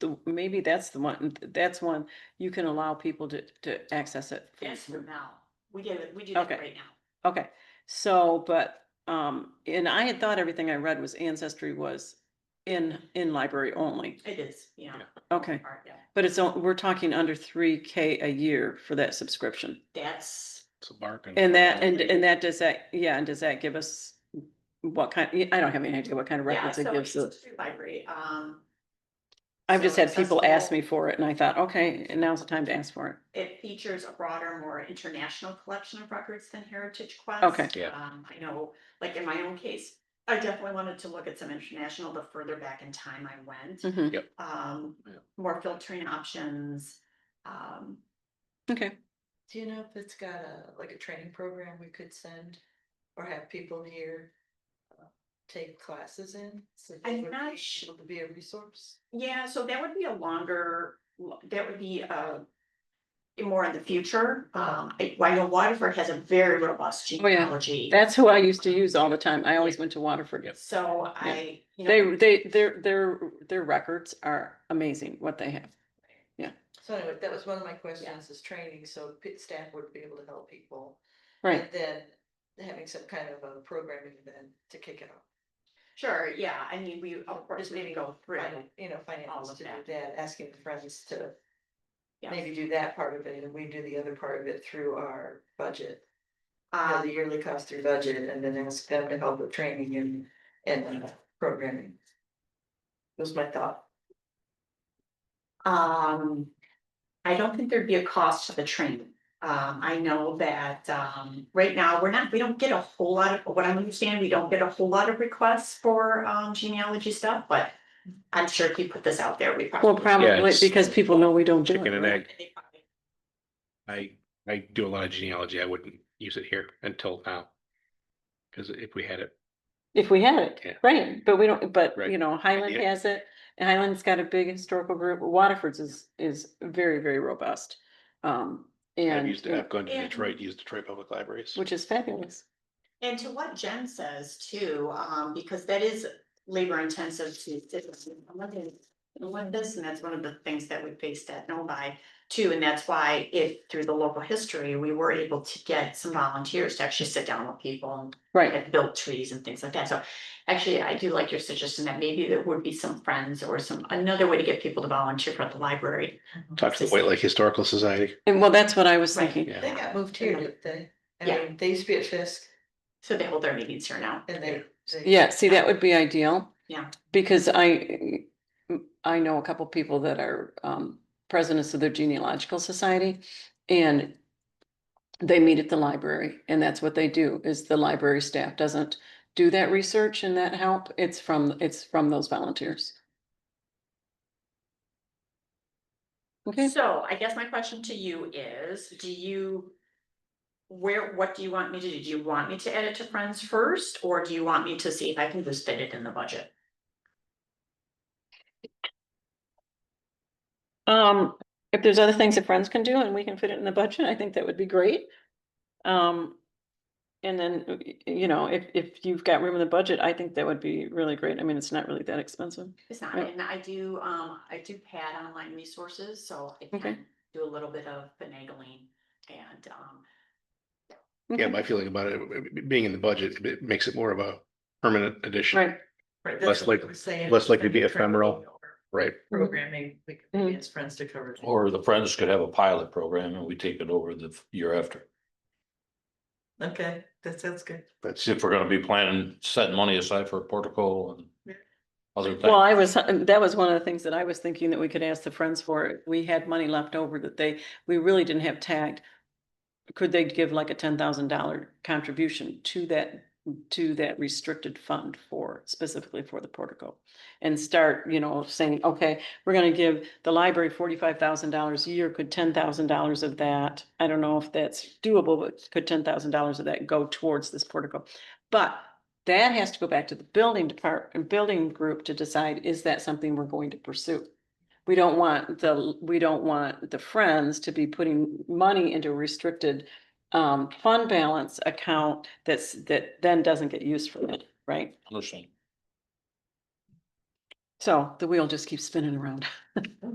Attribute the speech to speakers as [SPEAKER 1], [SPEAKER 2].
[SPEAKER 1] the, maybe that's the one, that's one, you can allow people to, to access it. from-
[SPEAKER 2] Yes, for now. We do it, we do
[SPEAKER 1] Okay.
[SPEAKER 2] that right now.
[SPEAKER 1] Okay, so, but, um, and I had thought everything I read was ancestry was in, in library only.
[SPEAKER 2] It is, yeah.
[SPEAKER 1] Okay,
[SPEAKER 2] Alright, yeah.
[SPEAKER 1] but it's, on- we're talking under three K a year for that subscription.
[SPEAKER 2] That's,
[SPEAKER 3] It's a bargain.
[SPEAKER 1] And that, and, and that, does that, yeah, and does that give us what kind, I don't have any idea what kind of
[SPEAKER 2] yeah,
[SPEAKER 1] records it
[SPEAKER 2] so it's
[SPEAKER 1] gives us.
[SPEAKER 2] through library, um,
[SPEAKER 1] I've just
[SPEAKER 2] so
[SPEAKER 1] had people ask
[SPEAKER 2] accessible.
[SPEAKER 1] me for it and I thought, okay, and now's the time to ask for it.
[SPEAKER 2] it features a broader, more international collection of records than Heritage Quest.
[SPEAKER 1] Okay.
[SPEAKER 3] Yeah.
[SPEAKER 2] Um, I know, like in my own case, I definitely wanted to look at some international, the further back in time I went.
[SPEAKER 1] Mhm.
[SPEAKER 2] Um,
[SPEAKER 3] Yeah.
[SPEAKER 2] more filtering options, um,
[SPEAKER 1] Okay,
[SPEAKER 4] Do you know if it's got a, like a training program we could send or have people here? uh, Take classes in? so that
[SPEAKER 2] I'm
[SPEAKER 4] we're
[SPEAKER 2] not
[SPEAKER 4] able
[SPEAKER 2] su-
[SPEAKER 4] To be a resource?
[SPEAKER 2] Yeah, so that would be a longer, that would be uh. More in the future, um, I- I know Waterford has a very robust
[SPEAKER 1] Oh, yeah.
[SPEAKER 2] genealogy,
[SPEAKER 1] that's who I used to use all the time. I always went to Waterford.
[SPEAKER 3] Yep.
[SPEAKER 2] so I, you
[SPEAKER 1] They,
[SPEAKER 2] know.
[SPEAKER 1] they, their, their, their records are amazing, what they have.
[SPEAKER 4] So anyway, that was one of my questions is training, so pit staff would be able to help people.
[SPEAKER 1] Right,
[SPEAKER 4] And then having some kind of a programming event to kick it off.
[SPEAKER 2] Sure, yeah, I mean, we, of course,
[SPEAKER 4] Just
[SPEAKER 2] we
[SPEAKER 4] maybe
[SPEAKER 2] would go through,
[SPEAKER 4] Finan- You know,
[SPEAKER 2] all
[SPEAKER 4] finance
[SPEAKER 2] of
[SPEAKER 4] to do
[SPEAKER 2] that.
[SPEAKER 4] that, asking friends to
[SPEAKER 2] yeah,
[SPEAKER 4] maybe do that part of it and we do the other part of it through our budget. you know,
[SPEAKER 2] um,
[SPEAKER 4] the yearly cost through budget and then ask them to help with training and, and uh, programming. Was my thought.
[SPEAKER 2] um. I don't think there'd be a cost to the training, um, I know that, um, right now, we're not, we don't get a whole lot of, what I understand, we don't get a whole lot of requests for, um, genealogy stuff, but. I'm sure if you put this out there, we probably.
[SPEAKER 1] well, probably
[SPEAKER 3] it's
[SPEAKER 1] because people know we don't do it.
[SPEAKER 3] Chicken and
[SPEAKER 1] right?
[SPEAKER 3] egg.
[SPEAKER 2] And they probably
[SPEAKER 3] I, I do a lot of genealogy. I wouldn't use it here until now. Cause if we had it,
[SPEAKER 1] If we had it,
[SPEAKER 3] Yeah.
[SPEAKER 1] right, but we don't, but
[SPEAKER 3] Right.
[SPEAKER 1] you know, Highland
[SPEAKER 3] Yeah.
[SPEAKER 1] has it, and Highland's got a big historical group, Waterford's is, is very, very robust. Um,
[SPEAKER 3] I've
[SPEAKER 1] and,
[SPEAKER 3] used
[SPEAKER 1] you
[SPEAKER 3] it.
[SPEAKER 1] know,
[SPEAKER 3] I've gone to
[SPEAKER 2] And-
[SPEAKER 3] Detroit, used Detroit Public Libraries.
[SPEAKER 1] which is fabulous.
[SPEAKER 2] And to what Jen says too, um, because that is labor intensive to. What this, and that's one of the things that we faced at Novi too, and that's why if through the local history, we were able to get some volunteers to actually sit down with people. and-
[SPEAKER 1] Right,
[SPEAKER 2] And build trees and things like that, so actually, I do like your suggestion that maybe there would be some friends or some, another way to get people to volunteer for the library.
[SPEAKER 3] Talk to the White Lake Historical Society.
[SPEAKER 1] and well, that's what I was
[SPEAKER 2] Right.
[SPEAKER 1] thinking.
[SPEAKER 3] Yeah.
[SPEAKER 4] They got moved here, didn't they? I
[SPEAKER 2] Yeah.
[SPEAKER 4] mean, they used to be at Fisk
[SPEAKER 2] So they hold their meetings here now.
[SPEAKER 4] and they. they-
[SPEAKER 1] Yeah, see, that would be ideal.
[SPEAKER 2] Yeah.
[SPEAKER 1] Because I, I know a couple people that are um presidents of the genealogical society and. They meet at the library and that's what they do is the library staff doesn't do that research and that help. It's from, it's from those volunteers. Okay,
[SPEAKER 2] So I guess my question to you is, do you? Where, what do you want me to do? Do you want me to add it to friends first, or do you want me to see if I can just fit it in the budget?
[SPEAKER 1] um, if there's other things that friends can do and we can fit it in the budget, I think that would be great. Um, and then, uh, y- you know, if, if you've got room in the budget, I think that would be really great. I mean, it's not really that expensive.
[SPEAKER 2] It's not,
[SPEAKER 1] Yeah.
[SPEAKER 2] and I do, um, I do pad online resources, so I
[SPEAKER 1] Okay.
[SPEAKER 2] can do a little bit of finagling and, um.
[SPEAKER 3] Yeah,
[SPEAKER 1] Okay.
[SPEAKER 3] my feeling about it, w- w- being in the budget, it makes it more of a permanent addition.
[SPEAKER 1] Right,
[SPEAKER 4] Right,
[SPEAKER 3] Less
[SPEAKER 4] that's what
[SPEAKER 3] like-
[SPEAKER 4] I'm saying,
[SPEAKER 3] less likely to be
[SPEAKER 4] training
[SPEAKER 3] ephemeral.
[SPEAKER 4] or
[SPEAKER 3] Right.
[SPEAKER 4] Programming, we could
[SPEAKER 1] Mhm.
[SPEAKER 4] maybe ask friends to cover. it.
[SPEAKER 5] Or the friends could have a pilot program and we take it over the f- year after.
[SPEAKER 4] Okay, that sounds good.
[SPEAKER 3] That's
[SPEAKER 5] See if we're gonna be planning, setting money aside for a portico
[SPEAKER 4] Yeah.
[SPEAKER 5] and other
[SPEAKER 1] well,
[SPEAKER 5] things.
[SPEAKER 1] I was, um, that was one of the things that I was thinking that we could ask the friends for. We had money left over that they, we really didn't have tagged. Could they give like a ten thousand dollar contribution to that, to that restricted fund for, specifically for the portico? And start, you know, saying, okay, we're gonna give the library forty-five thousand dollars a year, could ten thousand dollars of that, I don't know if that's doable, but could ten thousand dollars of that go towards this portico? But that has to go back to the building department, building group to decide, is that something we're going to pursue? We don't want the, we don't want the friends to be putting money into a restricted um, fund balance account that's, that then doesn't get used for it, right?
[SPEAKER 5] Understand.
[SPEAKER 1] So the wheel just keeps spinning around.